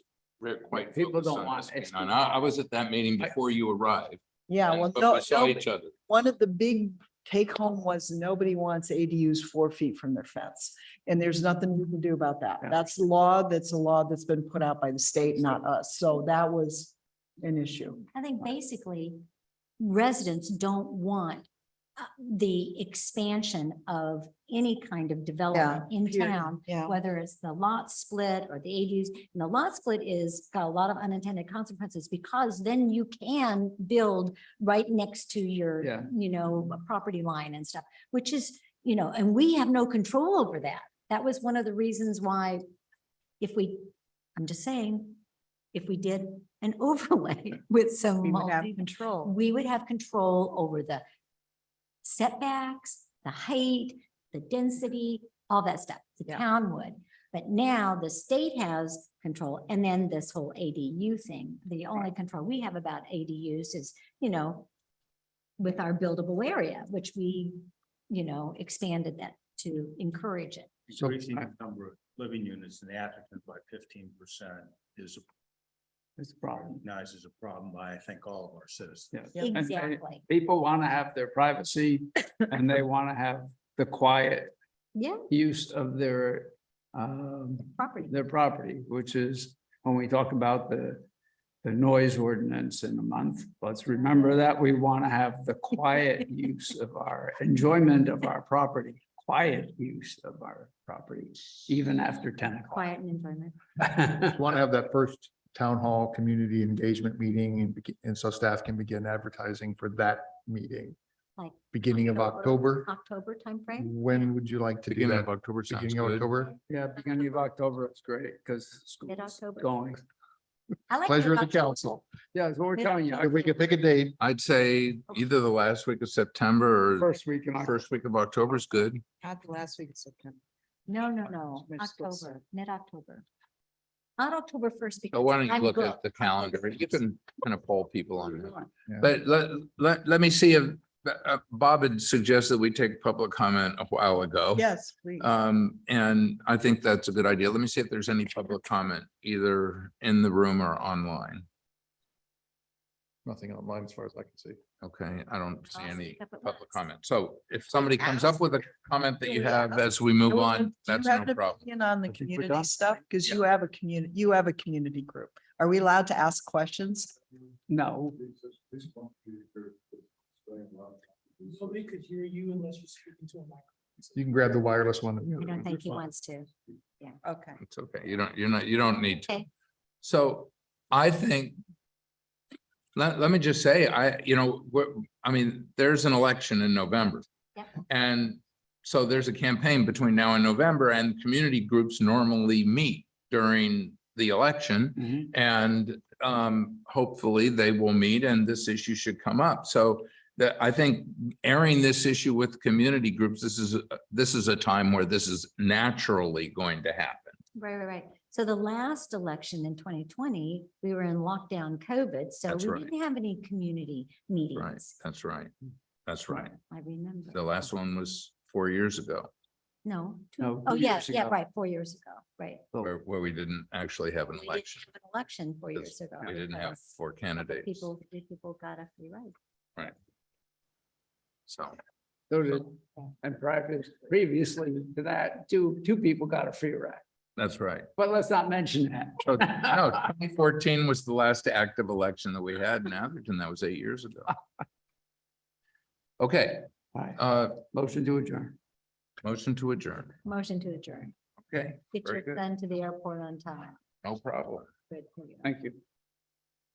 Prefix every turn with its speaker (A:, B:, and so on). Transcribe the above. A: We're quite
B: People
A: focused
B: don't
A: on
B: want
A: this being
B: extra-
A: on. I, I was at that meeting
B: I-
A: before you arrived.
C: Yeah,
A: and-
C: well,
A: but
C: no,
A: we saw
C: no,
A: each other.
C: one of the big take home was nobody wants ADUs four feet from their fence. And there's nothing you can do about that.
B: Yeah.
C: That's law, that's a law that's been put out by the state, not us. So that was an issue.
D: I think basically residents don't want uh, the expansion of any kind of development in
C: period.
D: town,
C: Yeah.
D: whether it's the lot split or the ADUs. And the lot split is got a lot of unintended consequences because then you can build right next to your,
B: Yeah.
D: you know, property line and stuff, which is, you know, and we have no control over that. That was one of the reasons why if we, I'm just saying, if we did an overlay with some
C: We would have
D: multi,
C: control.
D: we would have control over the setbacks, the height, the density, all that stuff. The
C: Yeah.
D: town would. But now the state has control and then this whole ADU thing, the only control we have about ADUs is, you know, with our buildable area, which we, you know, expanded that to encourage it.
B: So,
E: Increasing
B: I-
E: the number of living units in the applicant by fifteen percent is
B: It's a problem.
E: recognized as a problem by, I think, all of our citizens.
B: Yes. And- and
D: Exactly.
B: People want to have their privacy and they want to have the quiet
D: Yeah,
B: use of their um,
D: property.
B: their property, which is when we talk about the the noise ordinance in a month, let's remember that we want to have the quiet use of our enjoyment of our property, quiet use of our property, even after ten o'clock.
D: Quiet and environment.
F: want to have that first town hall community engagement meeting and, begi- and so staff can begin advertising for that meeting.
D: Like
F: Beginning of
D: October?
F: October,
D: October timeframe?
F: when would you like to do
A: Beginning
F: that?
A: of October sounds
F: Beginning of
A: good.
F: October?
B: Yeah, beginning of October, it's great because school's
D: Mid-October.
B: going.
D: I like
F: Pleasure of the
D: mid-October.
F: council.
B: Yeah, that's what we're telling you.
F: If we could pick a date,
A: I'd say either the last week of September or
B: First week in October.
A: first week of October is good.
C: Not the last week of September.
D: No, no, no,
C: Mid-
D: October, mid-October. Not October first because.
A: So why don't you
D: I'm
A: look at
D: booked.
A: the calendar? You can kind of poll people on that.
F: Yeah.
A: But let, let, let me see if, uh, Bob had suggested we take public comment a while ago.
C: Yes, please.
A: Um, and I think that's a good idea. Let me see if there's any public comment either in the room or online.
F: nothing online as far as I can see.
A: Okay, I don't see
D: I'll
A: any
D: speak up at
A: public
D: once.
A: comment. So if somebody comes up with a comment that you have as we move on, that's no problem.
C: And on the
B: I think we're
C: community
B: done.
C: stuff, because
A: Yeah.
C: you have a community, you have a community group. Are we allowed to ask questions?
B: No,
G: Nobody could hear you unless you're speaking to a microphone.
F: You can grab the wireless one.
D: I don't think he wants to.
C: Okay.
A: It's okay. You don't, you're not, you don't need to.
D: Okay,
A: So I think. Let, let me just say, I, you know, we're, I mean, there's an election in November.
D: Yep.
A: And so there's a campaign between now and November and community groups normally meet during the election.
B: Mhm.
A: And um, hopefully they will meet and this issue should come up. So that I think airing this issue with community groups, this is, a- this is a time where this is naturally going to happen.
D: right, right, right. So the last election in twenty twenty, we were in lockdown COVID, so
A: That's
D: we
A: right.
D: didn't have any community
A: Right,
D: meetings.
A: that's right. That's right.
D: I remember.
A: The last one was four years ago,
D: No. two-
B: No,
D: Oh,
B: two
D: yeah,
B: years
D: yeah,
B: ago.
D: right, four years ago, right.
A: where, where we didn't actually have an
D: We didn't
A: election.
D: have an Election four
A: because
D: years ago.
A: We didn't have
D: because
A: four candidates,
D: People, people got a free ride.
A: so.
B: so did, and previous, previously to that, two, two people got a free ride,
A: That's right.
B: but let's not mention that.
A: So, no, twenty fourteen was the last active election that we had in Atherton. That was eight years ago. Okay,
B: All right,
A: uh,
B: Motion to adjourn.
A: motion to adjourn.
D: Motion to adjourn.
A: Okay,
D: Get
A: Very
D: your
A: good.
D: son to the airport on time.
A: no problem.
D: Good for you.
B: Thank you.